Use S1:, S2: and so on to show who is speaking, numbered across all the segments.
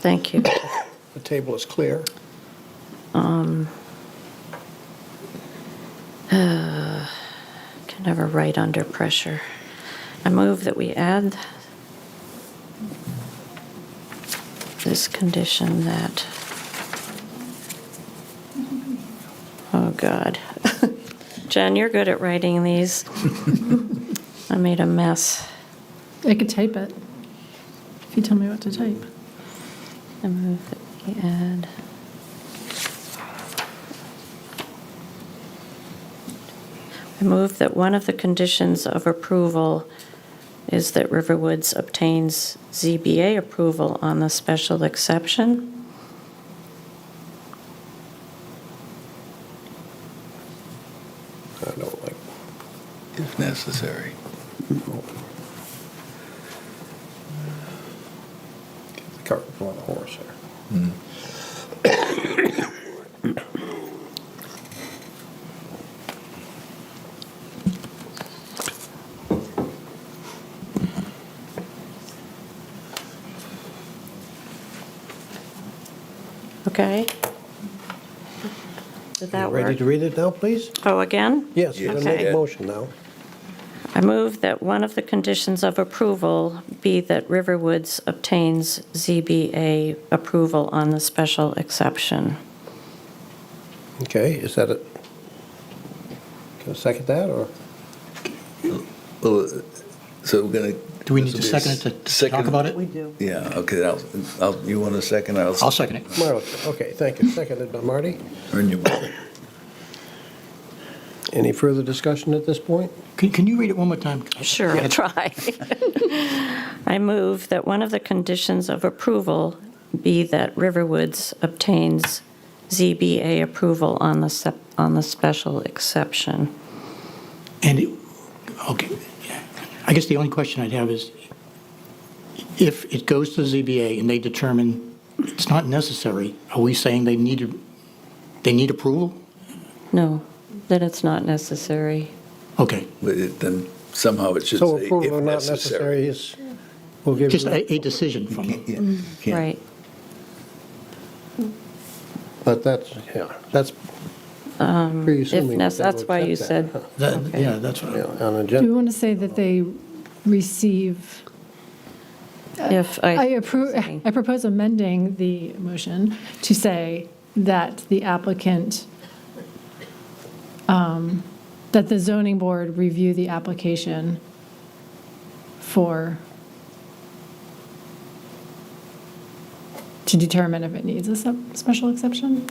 S1: Thank you.
S2: The table is clear.
S1: Can never write under pressure. I move that we add this condition that, oh, God. Jen, you're good at writing these. I made a mess.
S3: I could type it, if you tell me what to type.
S1: I move that we add. I move that one of the conditions of approval is that Riverwoods obtains ZBA approval on the special exception.
S2: I don't like,
S4: if necessary.
S2: the cart before the horse there.
S1: Okay? Did that
S2: You Ready
S1: work?
S2: to read it now, please?
S1: Oh, again?
S2: Yes, I'm going to make
S1: Okay.
S2: a motion now.
S1: I move that one of the conditions of approval be that Riverwoods obtains ZBA approval on the special exception.
S2: Okay, is that it? Can I second that, or?
S4: Well, so we're going to.
S5: Do we need to second it to- to talk about it?
S4: do. Yeah, okay, I'll, I'll, you want a second? I'll.
S5: I'll second it.
S2: Marla, okay, thank you. Seconded by Marty.
S4: Earn your vote.
S2: Any further discussion at this point?
S5: Can, can you read it one more time?
S1: Sure, I'll try. I move that one of the conditions of approval be that Riverwoods obtains ZBA approval on the, sep- on the special exception.
S5: And, it- okay, yeah. I guess the only question I'd have is, if it goes to the ZBA and they determine it's not necessary, are we saying they need, they need approval?
S1: No, that it's not necessary.
S5: Okay,
S4: But it- then somehow it should
S2: So
S4: say
S2: approval
S4: if
S2: or not necessary
S4: necessary.
S2: is, we'll give
S5: just
S2: you,
S5: a, a decision from them.
S4: Yeah,
S1: Mm,
S4: can't-
S1: Right.
S2: but that's, yeah, that's
S1: Um, If,
S2: pre-assuming.
S1: nec-
S2: that they'll
S1: that's why you
S2: accept
S1: said,
S2: that,
S5: That-
S1: Okay.
S5: Yeah, that's what,
S2: huh? Yeah,
S5: I-
S2: on a
S3: Do we
S2: gen-
S3: want to say that they receive,
S1: if
S3: I
S1: I,
S3: approve,
S1: Sorry.
S3: I propose amending the motion to say that the applicant, um, that the zoning board review the application for, to determine if it needs a sep- special exception?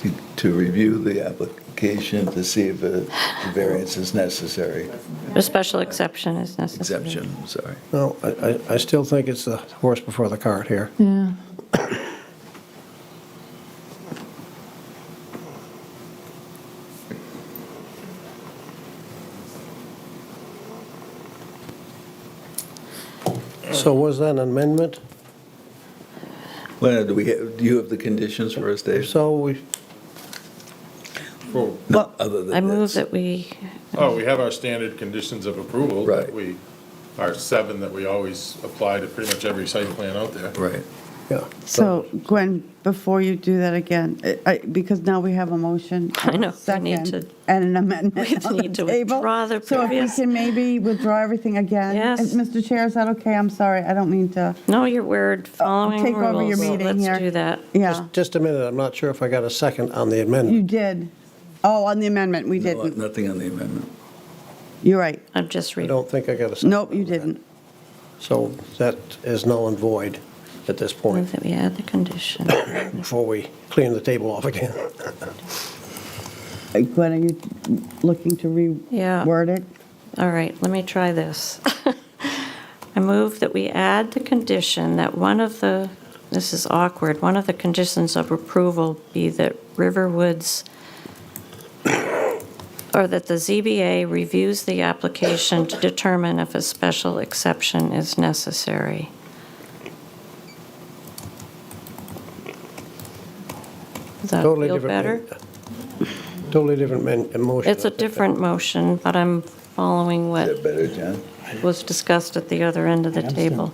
S4: to- To review the application to see if a variance is necessary,
S1: a special exception is necessary.
S4: exemption, I'm sorry.
S2: No, I, I- I still think it's the horse before the cart here.
S3: Yeah.
S2: So was that an amendment?
S4: Leonard, do we, have- do you have the conditions for us,
S2: If
S4: Dave?
S2: so, we,
S6: Well,
S4: No, other than
S1: I move
S4: this.
S1: that we,
S6: oh, we have our standard conditions of approval.
S4: Right.
S6: that We, our seven that we always apply to pretty much every site plan out there.
S4: Right.
S2: yeah.
S7: So Gwen, before you do that again, I- I- because now we have a motion.
S1: I know, we
S7: and a
S1: need
S7: second
S1: to-
S7: And an
S1: we
S7: amendment on the
S1: need to
S7: table.
S1: withdraw the previous-
S7: So if we can maybe withdraw everything again.
S1: Yes.
S7: Uh, Mr. Chair, is that okay? I'm sorry, I don't mean to,
S1: no, you're weird, following rules.
S7: take over your meeting here.
S1: Let's do that.
S7: yeah.
S2: Just, just a minute, I'm not sure if I got a second on the
S7: You
S2: amendment.
S7: did. Oh, on the amendment, we
S4: No,
S7: didn't.
S4: Nothing on the amendment.
S7: You're right.
S1: I'm just
S2: I
S1: reading.
S2: don't think I got a second.
S7: Nope, you didn't.
S2: So that is null and void at this
S1: Move
S2: point,
S1: that we add the condition.
S2: before we clean the table off again.
S7: Uh, Gwen, are you looking to
S1: Yeah.
S7: reword it?
S1: All right, let me try this. I move that we add the condition that one of the, this is awkward, one of the conditions of approval be that Riverwoods, or that the ZBA reviews the application to determine if a special exception is necessary. Does that
S2: Totally
S1: feel
S2: different
S1: better?
S2: man- Totally different man- emotion.
S1: It's a different motion, but I'm following what
S4: Is that better, John?
S1: was discussed at the other end of the
S5: I understand.
S1: table.